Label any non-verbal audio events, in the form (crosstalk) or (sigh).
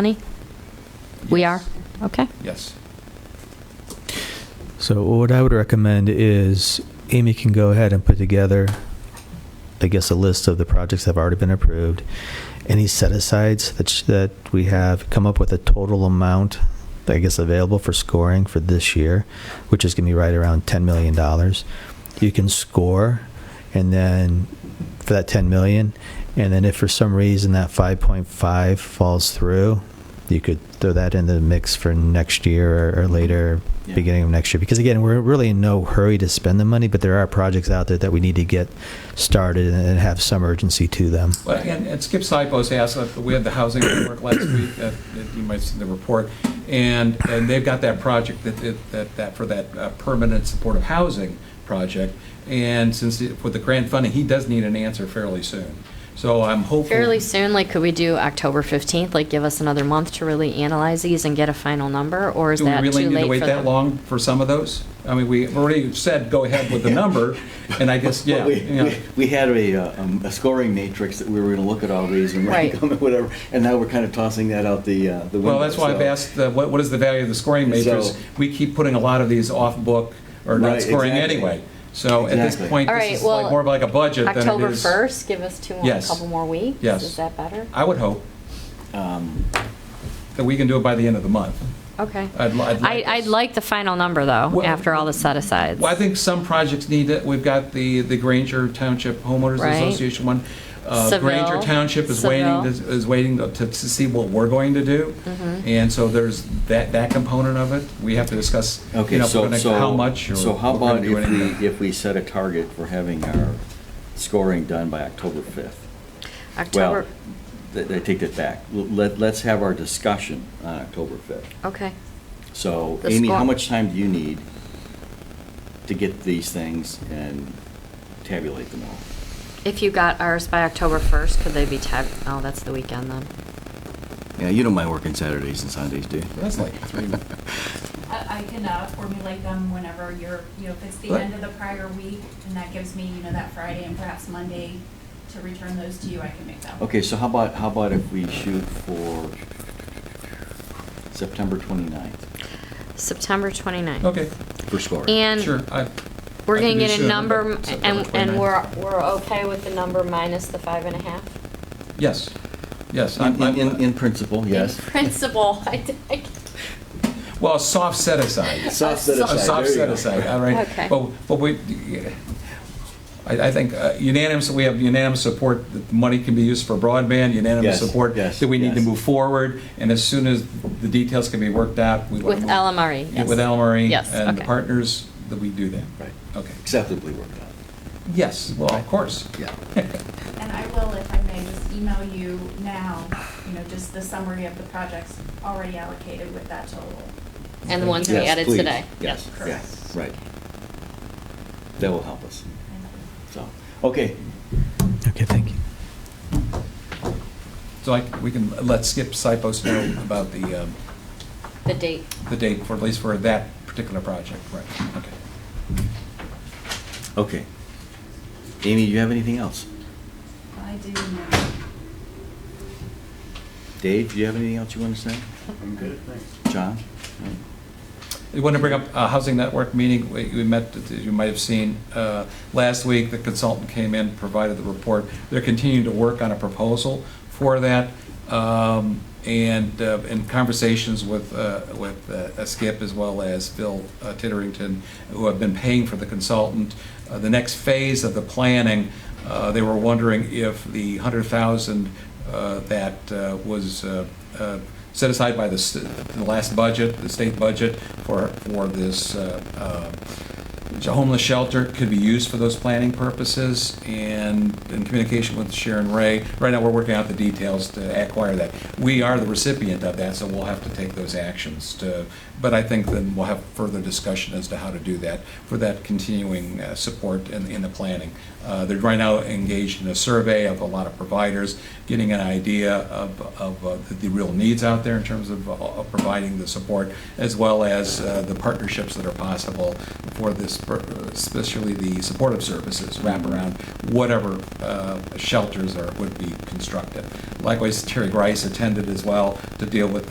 money? We are? Yes. Okay. Yes. So what I would recommend is Amy can go ahead and put together, I guess, a list of the projects that have already been approved, any set asides that sh- that we have, come up with a total amount, I guess, available for scoring for this year, which is going to be right around ten million dollars. You can score, and then for that ten million, and then if for some reason that five point five falls through, you could throw that in the mix for next year or, or later, Yeah. beginning of next year. Because again, we're really in no hurry to spend the money, but there are projects out there that we need to get started and have some urgency to them. Well, And and Skip Sipos asked, uh, we had the housing report last week, that that you might see the report, and, and they've got that project that- that, that, that for that uh, permanent supportive housing project, and since, it- with the grant funding, he does need an answer fairly soon. So I'm hopeful. Fairly soon, like, could we do October 15th? Like, give us another month to really analyze these and get a final number? Or is Do we that too late for really them? need to wait that long for some of those? I mean, we already said, go ahead (laughs) with the number, and I guess, yeah. Well, we- you know. we- We had a, uh, um, a scoring matrix that we were going to look at all these and Right. rank them and whatever, and now we're kind of tossing that out the, uh, the window. Well, that's why I've so- asked, uh, what, what is the value of the scoring matrix? So- We keep putting a lot of these off book or not Right, scoring exactly. anyway. So at this Exactly. point, All this right, is like well, more of like a budget than it is. October 1st, give us two, a Yes. couple more weeks? Yes. Is that better? I would hope Um, that we can do it by the end of the month. Okay. I'd li- I'd I- like I'd this. like the final number, though, Well- after all the set-asides. Well, I think some projects need it. We've got the, the Granger Township Homeowners Right. Association one. Uh, Seville. Granger Township is waiting, Seville. Mm-hmm. is waiting to, to see what we're going to do. And so there's that, that component of it. We have to discuss, you Okay, know, if we're so, gonna- so. how much or. So how if we're gonna about do if anything. we, if we set a target for having our scoring done by October 5th? Well, October, th- I take that back. L- Let, let's have our discussion on October 5th. okay. So, The Amy, how score- much time do you need to get these things and tabulate them all? If you got ours by October 1st, could they be tab, oh, that's the weekend then. Yeah, you don't mind working Saturdays and Sundays, do you? That's like three I I can uh, formulate them whenever you're, you know, if it's the Right. end of the prior week, and that gives me, you know, that Friday and perhaps Monday to return those to you, I can make them. Okay, so how about, how about if we shoot for September 29th September 29th. Okay, for scoring? And sure. I- we're I can gonna do get a sooner, number, but m- September and, and 29th. we're, we're okay with the number minus the five and a half? Yes, yes. I'm- In, I'm- in, in principle, yes. In principle, (laughs) I, d- I- Well, a soft set aside. (laughs) Soft set A aside, soft there you set go. aside, all right. Okay. But, but we, I, I think uh, unanimous, we have unanimous support that the money can be used for broadband, unanimous Yes, support yes, that we need to yes. move forward, and as soon as the details can be worked out, we want with to move. LMRE, Yeah, E, yes. With Elmery Yes, E and the okay. partners, that we do that. (laughs) Right. Okay. Acceptably worked out. Yes, well, of course. Yeah. And I will, if I may, just email you now, you know, just the summary of the projects already allocated with that total. And the ones we Yes, added please. today. Yes, Yes. yes, right. That will help us, And- so, okay. Okay, thank you. (laughs) So I, we can let Skip Sipos know about the, um, The date. the date for, at least for that particular project, right, okay. Okay. Amy, do you have anything else? I do know. Dave, do you have anything else you want to say? I'm good, thanks. John? You want to bring up uh, Housing Network meeting, we we met, as you might have seen, uh, last week, the consultant came in, provided the report. They're continuing to work on a proposal for that, um, and uh, in conversations with, uh, with uh, Skip as well as Bill uh, Titterington, who have been paying for the consultant. Uh, The next phase of the planning, uh, they were wondering if the 100,000 uh, that uh, was uh, uh, set aside by the, s- the last budget, the state budget, for, for this uh, uh, homeless shelter could be used for those planning purposes, and in communication with Sharon Ray, right now, we're working out the details to acquire that. We are the recipient of that, so we'll have to take those actions to, but I think then we'll have further discussion as to how to do that, for that continuing uh, support in, in the planning. Uh, They're right now engaged in a survey of a lot of providers, getting an idea of, of uh, the- the real needs out there in terms of uh, of providing the support, as well as uh, the partnerships that are possible for this sp- especially the supportive services, wraparound, whatever uh, shelters are, would be constructed. Likewise, Terry Grice attended as well to deal with the